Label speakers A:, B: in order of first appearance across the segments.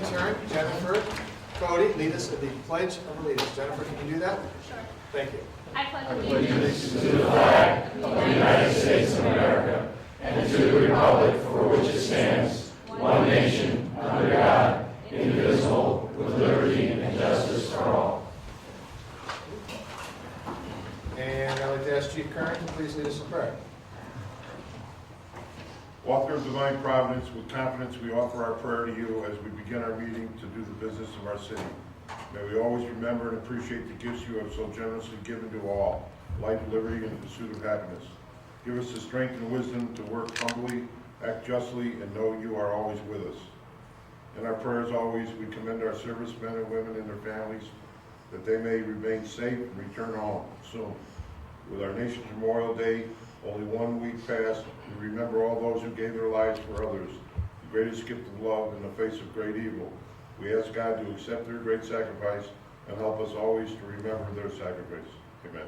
A: uh, Cody, lead us in the Pledge of Allegiance. Jennifer, can you do that?
B: Sure.
A: Thank you.
B: I pledge allegiance
A: And I'd like to ask Chief Curran to please lead us in prayer.
C: Author of divine providence, with confidence we offer our prayer to you as we begin our meeting to do the business of our city. May we always remember and appreciate the gifts you have so generously given to all, life, liberty, and the pursuit of happiness. Give us the strength and wisdom to work humbly, act justly, and know you are always with us. In our prayers always, we commend our servicemen and women and their families, that they may remain safe and return home soon. With our nation's Memorial Day only one week past, we remember all those who gave their lives for others, the greatest gift of love in the face of great evil. We ask God to accept their great sacrifice and help us always to remember their sacrifice. Amen.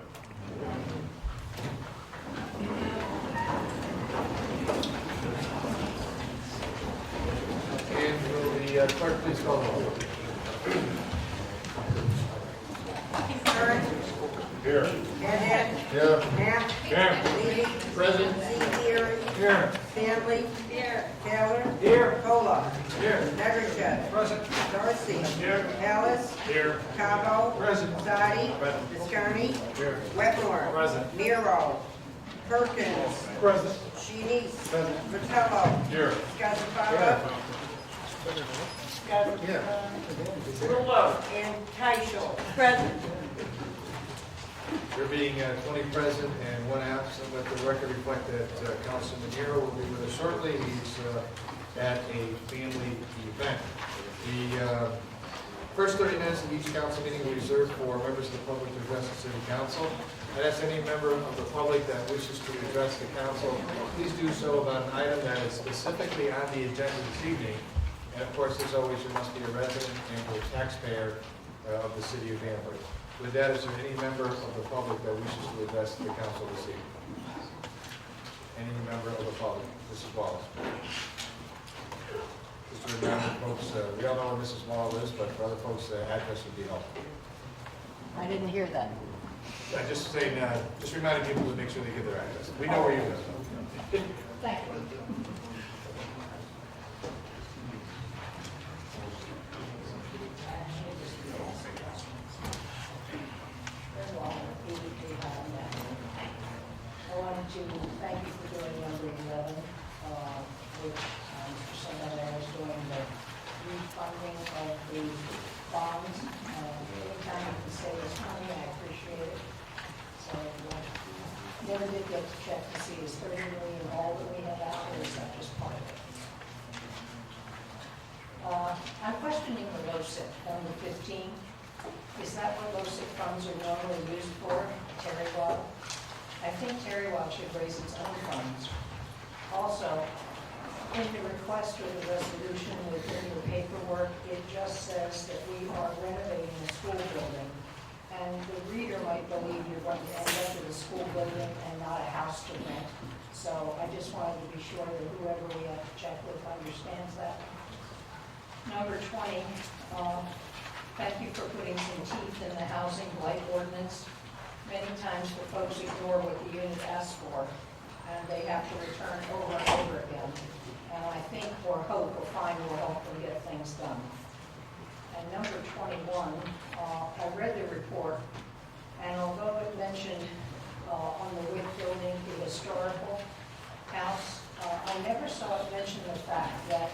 A: And will the uh, clerk please call the roll?
D: Keith Curran.
C: Here.
D: Evan.
C: Here.
D: Knapp.
C: Here.
D: Levy.
C: Present.
D: Seaver.
A: Here.
D: Stanley.
B: here,
D: Taylor.
A: Here.
D: Kola.
A: Here.
D: Evershed.
A: Present.
D: Dorsey.
C: Here.
D: Ellis.
C: Here.
D: Cabo.
A: Present.
D: Zadi.
C: Present.
D: Biscarni.
A: Here.
D: Wetmore.
A: Present.
D: Miro. Perkins.
A: Present.
D: Shenice.
A: Present.
D: Vitello.
C: Here.
D: Scarpata.
A: Yeah.
D: Rulo. And Keisel. Present.
A: There being uh, 20 present and one absent, let the record reflect that uh, Councilman Nero will be with us shortly. He's uh, at a family event. The uh, first 30 minutes of each council meeting are reserved for members of the public to address the city council. And as any member of the public that wishes to address the council, please do so about an item that is specifically on the agenda this evening. And of course, as always, you must be a resident and or taxpayer uh, of the city of Danbury. With that, is there any member of the public that wishes to address the council this evening? Any member of the public? Mrs. Wallace. Just to remind the folks, uh, we all know where Mrs. Wallace is, but for other folks, the address would be helpful.
E: I didn't hear that.
A: I just saying, uh, just reminding people to make sure they get their address. We know where you live.
E: Thank you. I wanted to thank you for doing number 11, uh, which um, somebody that is doing the refunding of the bonds. Uh, Anytime you can save us money, I appreciate it. So uh, never did get to check to see is thirty million all that we have out, or is that just part of it? Uh, I'm questioning the LoSiP, number fifteen. Is that what LoSiP funds are normally used for, Terry Watt? I think Terry Watt should raise its own funds. Also, in the request or the resolution within your paperwork, it just says that we are renovating the school building. And the reader might believe you're going to end up with a school building and not a house to rent. So I just wanted to be sure that whoever we have to check with understands that. Number 20, um, thank you for putting some teeth in the housing blight ordinance. Many times the folks ignore what the unit asks for, and they have to return over and over again. And I think, or hope, or find will help them get things done. And number 21, uh, I read the report, and although it mentioned uh, on the Wick building, the historical house, uh, I never saw it mention the fact that